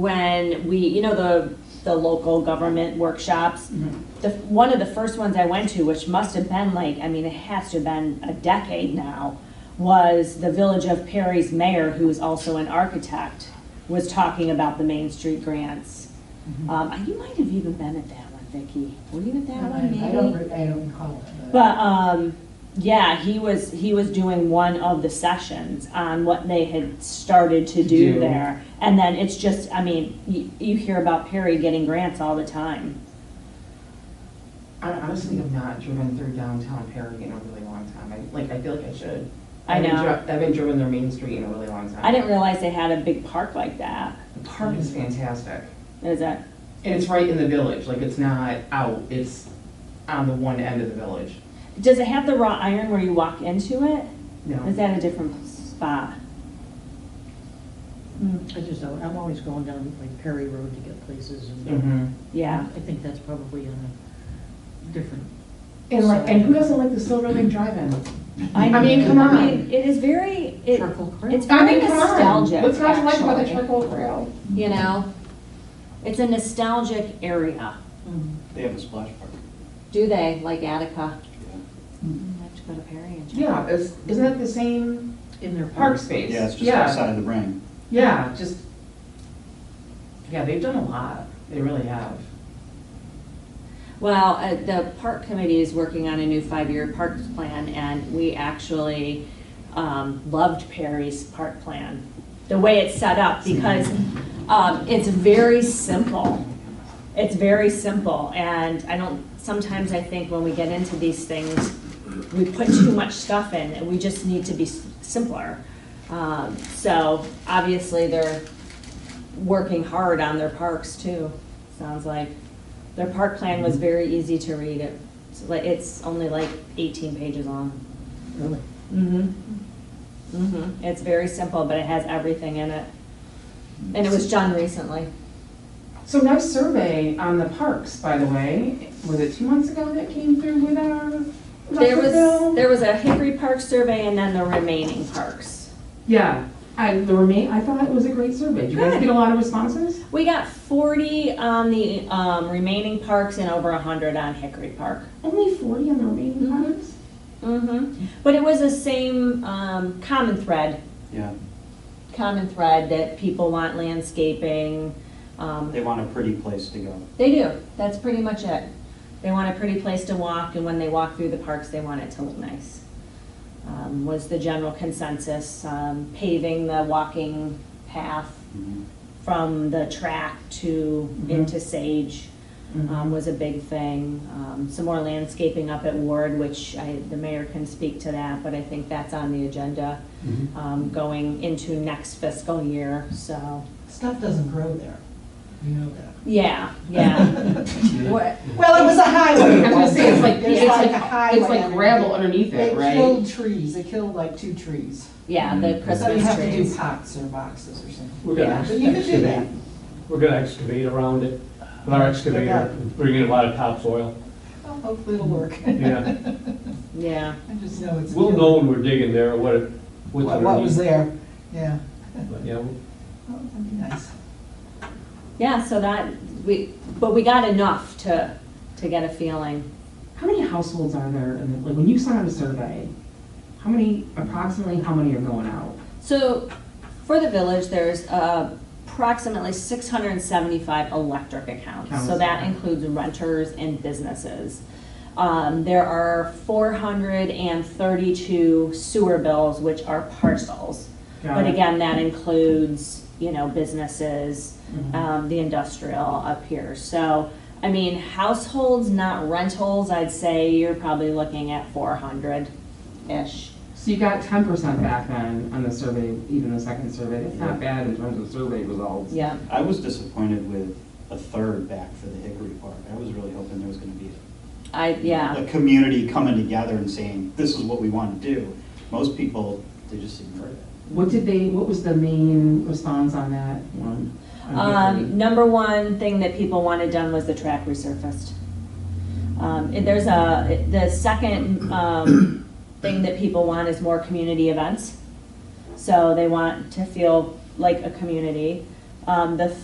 when we, you know, the, the local government workshops. Mm-hmm. The, one of the first ones I went to, which must have been like, I mean, it has to have been a decade now, was the Village of Perry's mayor, who is also an architect, was talking about the Main Street grants. Um, you might have even been at that one, Vicki. Were you at that one, maybe? Mm-hmm. I don't, re- I don't recall it, but. But um, yeah, he was he was doing one of the sessions on what they had started to To do, do. there, and then it's just I mean you, you hear about Perry getting grants all the time. I honestly have not driven through downtown Perry in a really long time. I, like, I feel like I should. I I've been know. dri- I've been driven their main street in a really long time. I didn't realize they had a big park like that. The park is fantastic. Is that And it's right in the village, like, it's not out, it's on the one end of the village. does it have the wrought iron where you walk into it? No. Is that a different spot? Hmm, I just, don't- I'm always going down like Perry Road to get places and. Mm-hmm. Yeah. I think that's probably on a different. And like, and who doesn't like the Silver Lake Drive-In? I mean, come I on. mean, it is very it, Charcoal grill. it's I very mean, come on. nostalgic. What's not to like about the actually. charcoal grill? You know, it's a nostalgic area. Mm. They have a splash park. Do they, like Attica? Yeah. I have to go to Perry and check. Yeah, it's, isn't that the same In their park parks. space? Yeah, it's just Yeah. outside of the ring. Yeah, just, yeah, they've done a lot. They really have. Well, uh, the park committee is working on a new five-year parks plan, and we actually um, loved Perry's park plan, the way it's set up, because um, it's very simple. It's very simple, and I don't, sometimes I think when we get into these things, we put too much stuff in, and we just need to be s- simpler. Um, So obviously, they're working hard on their parks too, sounds like. Their park plan was very easy to read, it's like, it's only like eighteen pages long. Really? Mm-hmm. Mm-hmm, it's very simple, but it has everything in it, and it was done recently. So nice survey on the parks, by the way. Was it two months ago that came through with our? There was, Russellville? there was a Hickory Park survey and then the remaining parks. Yeah, I, the remain, I thought it was a great survey. Did you guys Good. get a lot of responses? We got forty on the, um, remaining parks and over hundred on Hickory Park. Only forty on the remaining parks? Mm-hmm, but it was the same, um, common thread Yeah, common thread that people want landscaping. Um, they want a pretty place to go. They do, that's pretty much it. They want a pretty place to walk, and when they walk through the parks, they want it to look nice. Um, Was the general consensus, um, paving the walking path Mhm. from the track to, Mhm. into Sage Mm-hmm. um, was a big thing. Um, Some more landscaping up at Ward, which I, the mayor can speak to that, but I think that's on the agenda um, going into next fiscal year, so. Stuff doesn't grow there. You know that. Yeah, yeah. What- Well, it was a highway. I was gonna say, it's like, There's it's a like, highway it's like underneath. gravel underneath it, They killed right? trees, they killed like two trees. Yeah, the So you Christmas have to do trees. pots or boxes or something. We're gonna Yeah. But you could do that. excavate, we're gonna excavate around it with our excavator, and bring in a lot of topsoil, Well, Hopefully it'll work. yeah. Yeah, I just know it's. We'll know when we're digging there, what, it- what's What what was underneath. there, yeah. But, Yeah, Oh, That'd be nice. yeah, so that, we, but we got enough to, to get a feeling. How many households are there? in the like, when you sent out a survey, how many, approximately, how many are going out? So for the village, there's uh, approximately 675 electric accounts. So Accounts, that okay. includes renters and businesses. Um, There are 432 sewer bills, which are parcels. Got But it. again, that includes, you know, businesses, Mm-hmm. um, the industrial up here. So, I mean, households, not rentals, I'd say you're probably looking at 400-ish. So you got ten percent back then on the survey, even the second survey. That's not bad in terms of survey results. Yeah. I was disappointed with a third back for the Hickory Park. I was really hoping there was gonna be I, yeah. a community coming together and saying, this is what we want to do. Most people, they just ignore it. What did they, what was the main response on that one? On Hickory? Um, number one thing that people wanted done was the track resurfaced. Um, it- there's a, the second, um, thing that people want is more community events. So they want to feel like a community. Um, the